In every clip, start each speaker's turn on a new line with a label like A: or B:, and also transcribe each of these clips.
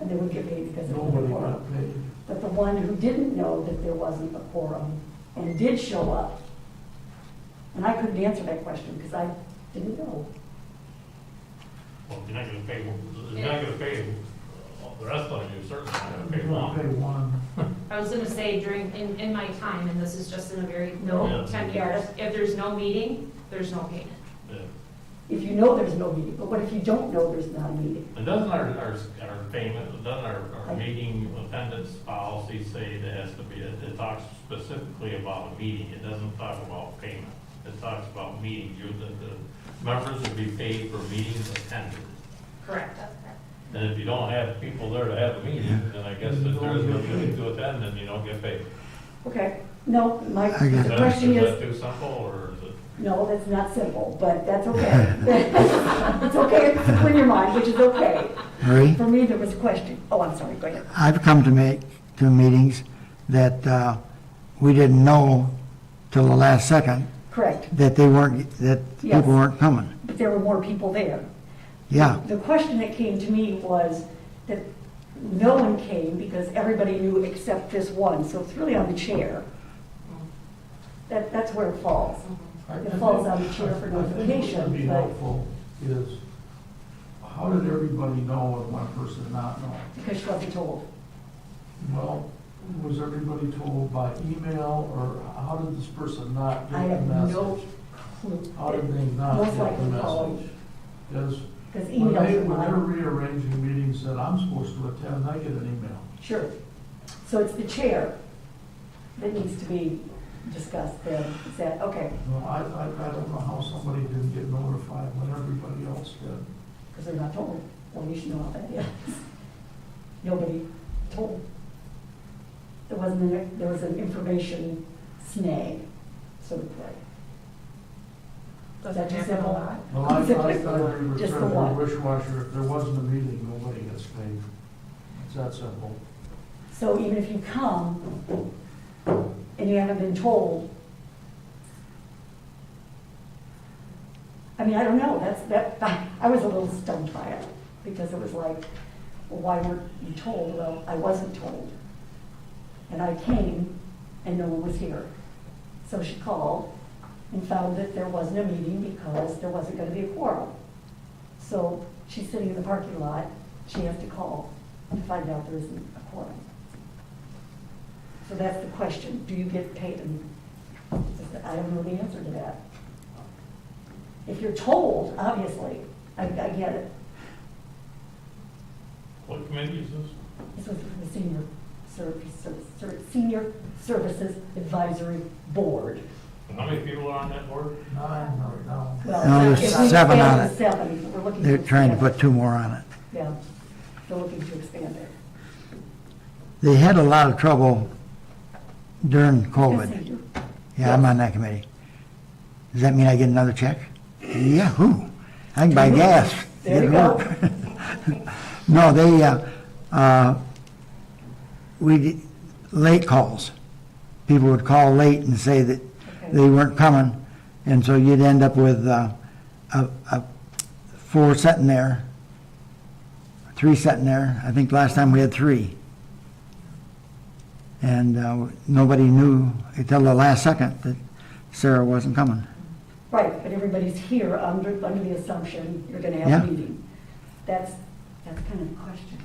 A: and they would get paid because there was a
B: Nobody
A: quorum.
B: got paid.
A: But the one who didn't know that there wasn't a quorum and did show up, and I couldn't answer that question because I didn't know.
C: Well, you're not gonna pay, you're not gonna pay all the rest of you, certainly not gonna pay
B: Not
C: one.
B: pay one.
D: I was gonna say during, in, in my time, and this is just in a very,
C: Yeah.
D: no, ten years, if there's no meeting, there's no payment.
C: Yeah.
A: If you know there's no meeting, but what if you don't know there's not a meeting?
C: And doesn't our, our, our payment, doesn't our, our meeting attendance policy say that has to be, it it talks specifically about a meeting, it doesn't talk about payment. It talks about meetings, you, the, the members would be paid for meetings attended.
D: Correct.
C: And if you don't have people there to have a meeting, then I guess if there is no meeting to attend, then you don't get paid.
A: Okay, no, my,
E: I get it.
C: Is
A: the
C: that-
A: question
C: Is that
A: is,
C: too simple, or is it?
A: no, that's not simple, but that's okay. It's okay if it's in your mind, which is okay.
E: Marie,
A: For me, there was a question, oh, I'm sorry, go ahead.
E: I've come to make, to meetings that uh, we didn't know till the last second
A: Correct,
E: that they weren't, that
A: Yes.
E: people weren't coming.
A: but there were more people there.
E: Yeah,
A: The question that came to me was that no one came because everybody knew except this one, so it's really on the chair. That, that's where it falls.
B: I-
A: It falls on the
B: I think-
A: chair for
B: I think what would be
A: notification, but-
B: helpful is, how did everybody know and one person not know?
A: Because she wasn't told.
B: Well, was everybody told by email, or how did this person not
A: I
B: get the
A: have no
B: message? How did
A: clue.
B: they not
A: Most
B: get the
A: likely called.
B: message? Yes,
A: Because
B: when
A: emails
B: they,
A: are
B: when they're
A: mine.
B: rearranging meetings that I'm supposed to attend, I get an email.
A: Sure. So it's the chair that needs to be discussed then. Is that, okay,
B: Well, I, I, I don't know how somebody didn't get notified when everybody else did.
A: because they're not told. Well, you should know about that, yes. Nobody told. There wasn't, an- there was an information snag, so to say. Does that just happen a lot?
B: Well, I, I thought we were
A: Just the
B: trying
A: one.
B: to wish-washer, if there wasn't a meeting, nobody gets paid. It's that simple.
A: So even if you come and you haven't been told, I mean, I don't know, that's, that, I was a little stunned by it, because it was like, well, why weren't you told? Well, I wasn't told. And I came and no one was here. So she called and found that there wasn't a meeting because there wasn't gonna be a quorum. So she's sitting in the parking lot, she has to call to find out there isn't a quorum. So that's the question, do you get paid? And I don't know the answer to that. If you're told, obviously, I, I get it,
C: What committee is this?
A: this was from the senior service, Ser- Ser- senior services advisory board.
C: And How many people are on that board?
B: Nine right now.
A: Well,
E: No, there's
A: if we
E: seven on
A: expand
E: it.
A: to Seven, we're looking.
E: they're trying to
A: expand
E: put two more on it.
A: it. Yeah, they're looking to expand it.
E: They had a lot of trouble during
A: Yes, they
E: COVID.
A: do.
E: Yeah, I'm on that committee. Does that mean I get another check? Yahoo! I can buy gas.
A: There you
E: Get
A: go.
E: work. No, they, uh, uh, we, did- late calls. People would call late and say that they weren't coming, and so you'd end up with, uh, a, a four sitting there, three sitting there. I think last time we had three. And, uh, nobody knew until the last second that Sarah wasn't coming.
A: Right, but everybody's here under, under the assumption you're gonna have
E: Yeah.
A: a meeting. That's, that's kind of the question.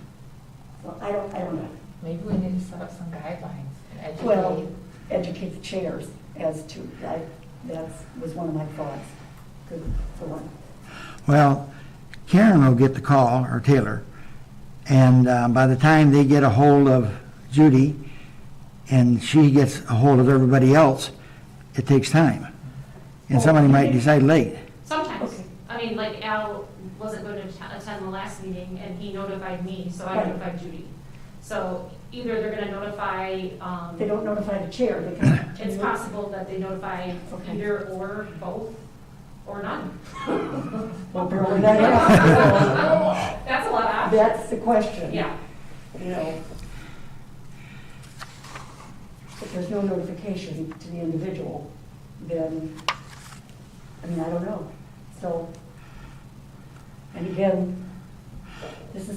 A: So I don't, I don't know.
F: Maybe we need to set up some guidelines and
A: Well,
F: educate.
A: educate the chairs as to, I, that was one of my thoughts. Good for one.
E: Well, Karen will get the call, or Taylor, and uh, by the time they get a hold of Judy, and she gets a hold of everybody else, it takes time. And somebody might decide late.
D: Sometimes,
A: Okay.
D: I mean, like Al wasn't going to att- attend the last meeting, and he notified me, so I
A: Right.
D: notified Judy. So either they're gonna notify, um,
A: They don't notify the chair, they can.
D: it's possible that they notify
A: Okay.
D: either or both, or none.
A: Well, barely that happens.
D: That's a lot of
A: So
D: options,
A: That's the question.
D: yeah.
A: You know. If there's no notification to the individual, then, I mean, I don't know. So, and again, this is